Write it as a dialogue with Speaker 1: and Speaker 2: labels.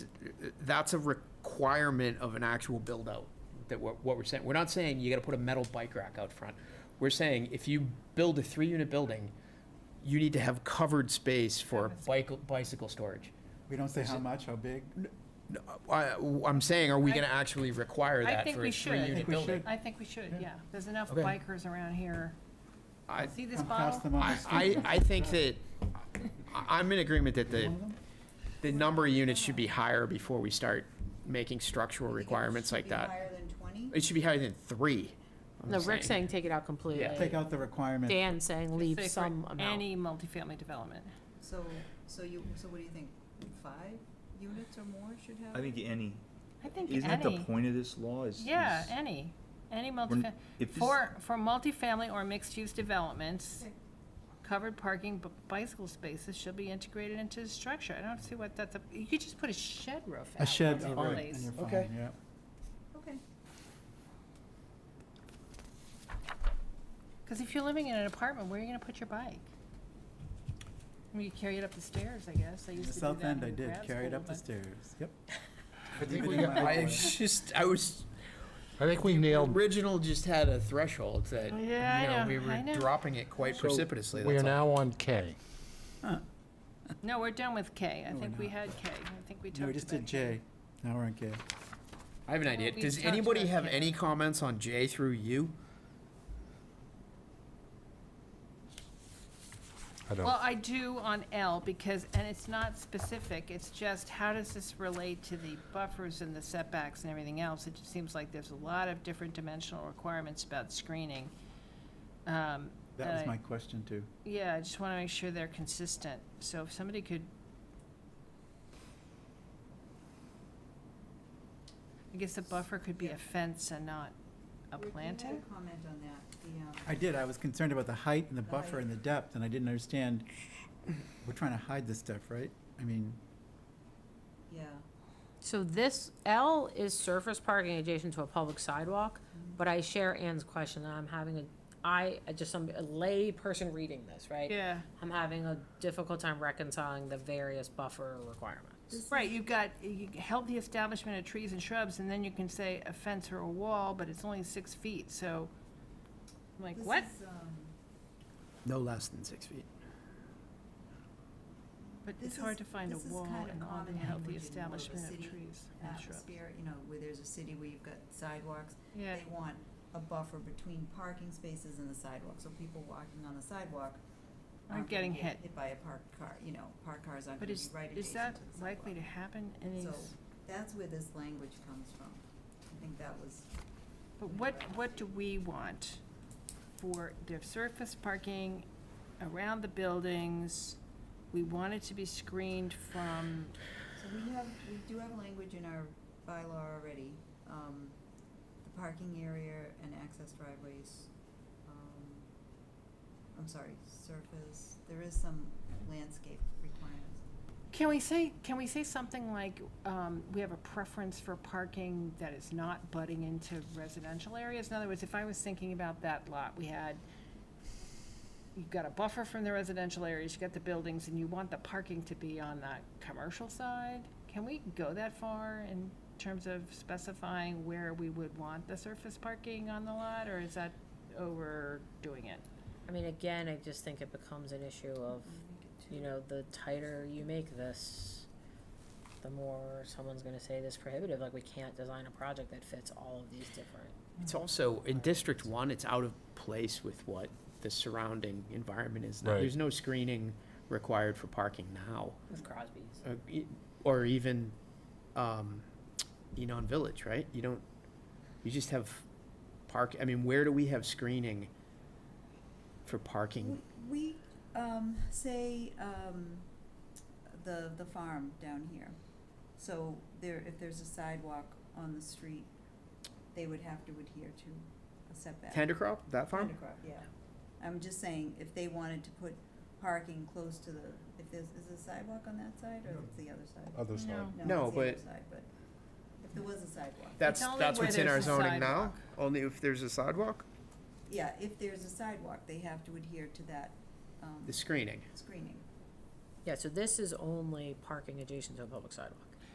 Speaker 1: that's a requirement of an actual build out that what, what we're saying. We're not saying you got to put a metal bike rack out front. We're saying if you build a three unit building, you need to have covered space for bike, bicycle storage.
Speaker 2: We don't say how much, how big.
Speaker 1: I, I'm saying, are we going to
Speaker 3: I-
Speaker 1: actually require
Speaker 3: I
Speaker 1: that
Speaker 3: think
Speaker 1: for
Speaker 3: we
Speaker 1: a
Speaker 3: should.
Speaker 1: three
Speaker 3: I
Speaker 1: unit
Speaker 2: think we
Speaker 1: building?
Speaker 2: should.
Speaker 3: I think we should, yeah. There's enough
Speaker 1: Okay.
Speaker 3: bikers around here.
Speaker 1: I,
Speaker 3: See this
Speaker 2: Come past
Speaker 3: bottle?
Speaker 2: them on the
Speaker 1: I,
Speaker 2: street.
Speaker 1: I think that, I- I'm in agreement that the,
Speaker 2: One of them?
Speaker 1: the number of units should be higher before we start making structural requirements like that.
Speaker 4: Higher than twenty?
Speaker 1: It should be higher than three. I'm
Speaker 5: No, Rick's saying take it out completely.
Speaker 1: Yeah.
Speaker 2: Take out the requirement.
Speaker 5: Dan's saying leave
Speaker 3: Say for
Speaker 5: some amount.
Speaker 3: Any multifamily development.
Speaker 4: So, so you, so what do you think, five units or more should have?
Speaker 6: I think any,
Speaker 3: I think
Speaker 6: isn't that the
Speaker 3: any.
Speaker 6: point of this law is?
Speaker 3: Yeah,
Speaker 6: is
Speaker 3: any, any
Speaker 6: when-
Speaker 3: multifamily,
Speaker 6: if this-
Speaker 3: for, for multifamily or mixed-use developments, covered parking b- bicycle spaces shall be integrated into the structure. I don't see what that's, a- you could just put a shed roof out.
Speaker 2: A shed,
Speaker 3: onto
Speaker 2: oh,
Speaker 3: all
Speaker 2: right,
Speaker 3: these.
Speaker 2: and you're
Speaker 1: Okay.
Speaker 2: fine, yeah.
Speaker 4: Okay.
Speaker 3: Because if you're living in an apartment, where are you going to put your bike? I mean, you carry it up the stairs, I guess. I
Speaker 2: In
Speaker 3: used
Speaker 2: the
Speaker 3: to do
Speaker 2: south
Speaker 3: that
Speaker 2: end, I
Speaker 3: in
Speaker 2: did,
Speaker 3: grad
Speaker 2: carry it
Speaker 3: school,
Speaker 2: up the
Speaker 3: but-
Speaker 2: stairs, yep.
Speaker 1: I think we
Speaker 2: Leave it in
Speaker 1: got-
Speaker 2: my
Speaker 1: I
Speaker 2: book.
Speaker 1: was just, I was,
Speaker 7: I think we nailed,
Speaker 1: original just had a threshold that,
Speaker 3: Oh, Yeah, I
Speaker 1: you know,
Speaker 3: know,
Speaker 1: we
Speaker 3: I know.
Speaker 1: were dropping it quite precipitously,
Speaker 7: we are
Speaker 1: that's all.
Speaker 7: now on K.
Speaker 3: No, we're done with K. I
Speaker 2: we're
Speaker 3: think we
Speaker 2: not.
Speaker 3: had K. I think we talked about.
Speaker 2: No, we just did J, now we're on K.
Speaker 1: I have an idea.
Speaker 3: we
Speaker 1: Does
Speaker 3: talked
Speaker 1: anybody
Speaker 3: about
Speaker 1: have
Speaker 3: K.
Speaker 1: any comments on J through U?
Speaker 7: I don't,
Speaker 3: Well, I do on L because, and it's not specific, it's just how does this relate to the buffers and the setbacks and everything else? It just seems like there's a lot of different dimensional requirements about screening. Um,
Speaker 2: That
Speaker 3: and
Speaker 2: was
Speaker 3: I-
Speaker 2: my question too.
Speaker 3: Yeah, I just want to make sure they're consistent. So if somebody could. I guess the buffer could be a fence and not a
Speaker 4: Rick, you
Speaker 3: planting.
Speaker 4: had a comment on that, the, um,
Speaker 2: I did, I was concerned about the height and the
Speaker 4: The
Speaker 2: buffer
Speaker 4: height.
Speaker 2: and the depth, and I didn't understand, we're trying to hide this stuff, right? I mean,
Speaker 4: yeah,
Speaker 5: So this L is surface parking adjacent to a public sidewalk, but I share Ann's question, and I'm having a, I, I just, some a lay person reading this, right?
Speaker 3: Yeah,
Speaker 5: I'm having a difficult time reconciling the various buffer requirements.
Speaker 3: right, you've got, you held the establishment of trees and shrubs, and then you can say a fence or a wall, but it's only six feet, so. I'm like,
Speaker 4: this
Speaker 3: what?
Speaker 4: is, um,
Speaker 1: No less than six feet.
Speaker 3: But
Speaker 4: this
Speaker 3: it's hard
Speaker 4: is-
Speaker 3: to find a
Speaker 4: this is
Speaker 3: wall
Speaker 4: kind of
Speaker 3: and all
Speaker 4: common
Speaker 3: the healthy
Speaker 4: language in more of a
Speaker 3: establishment of
Speaker 4: city
Speaker 3: trees and shrubs.
Speaker 4: atmosphere, you know, where there's a city where you've got sidewalks.
Speaker 3: Yeah,
Speaker 4: They want a buffer between parking spaces and the sidewalk, so people walking on the sidewalk
Speaker 3: Aren't
Speaker 4: aren't gonna
Speaker 3: getting
Speaker 4: get
Speaker 3: hit.
Speaker 4: by a parked car, you know, parked cars aren't
Speaker 3: but
Speaker 4: gonna be
Speaker 3: is,
Speaker 4: right adjacent to the sidewalk.
Speaker 3: is that likely to happen in these?
Speaker 4: So that's where this language comes from. I think that was,
Speaker 3: But what, what do we want for the surface parking around the buildings? We want it to be screened from,
Speaker 4: so we have, we do have language in our bylaw already. Um, the parking area and access driveways, um, I'm sorry, surface, there is some landscape requirements.
Speaker 3: can we say, can we say something like, um, we have a preference for parking that is not butting into residential areas? In other words, if I was thinking about that lot, we had, you've got a buffer from the residential areas, you've got the buildings, and you want the parking to be on that commercial side? Can we go that far in terms of specifying where we would want the surface parking on the lot, or is that overdoing it?
Speaker 5: I mean, again, I just think it becomes an issue of, you know, the tighter you make this, the more someone's gonna say this prohibitive, like, we can't design a project that fits all of these different.
Speaker 1: It's also, in District One, it's out of place with what the surrounding environment is now.
Speaker 7: Right.
Speaker 1: There's no screening required for parking now,
Speaker 5: With Crosby's.
Speaker 1: uh, e- or even, um, Enon Village, right? You don't, you just have park, I mean, where do we have screening for parking?
Speaker 4: We, um, say, um, the, the farm down here. So there, if there's a sidewalk on the street, they would have to adhere to a setback.
Speaker 1: Tendercroft, that farm?
Speaker 4: Undercroft, yeah. I'm just saying, if they wanted to put parking close to the, if there's, is there a sidewalk on that side, or it's the other side?
Speaker 7: Other side.
Speaker 1: Uh, No,
Speaker 4: it's the other
Speaker 1: but-
Speaker 4: side, but if there was a sidewalk,
Speaker 1: That's,
Speaker 3: only
Speaker 1: that's
Speaker 3: where
Speaker 1: what's in our
Speaker 3: there's a
Speaker 1: zoning now?
Speaker 3: sidewalk.
Speaker 1: Only if there's a sidewalk?
Speaker 4: yeah, if there's a sidewalk, they have to adhere to that, um,
Speaker 1: The screening.
Speaker 4: screening.
Speaker 5: Yeah, so this is only parking adjacent to a public sidewalk.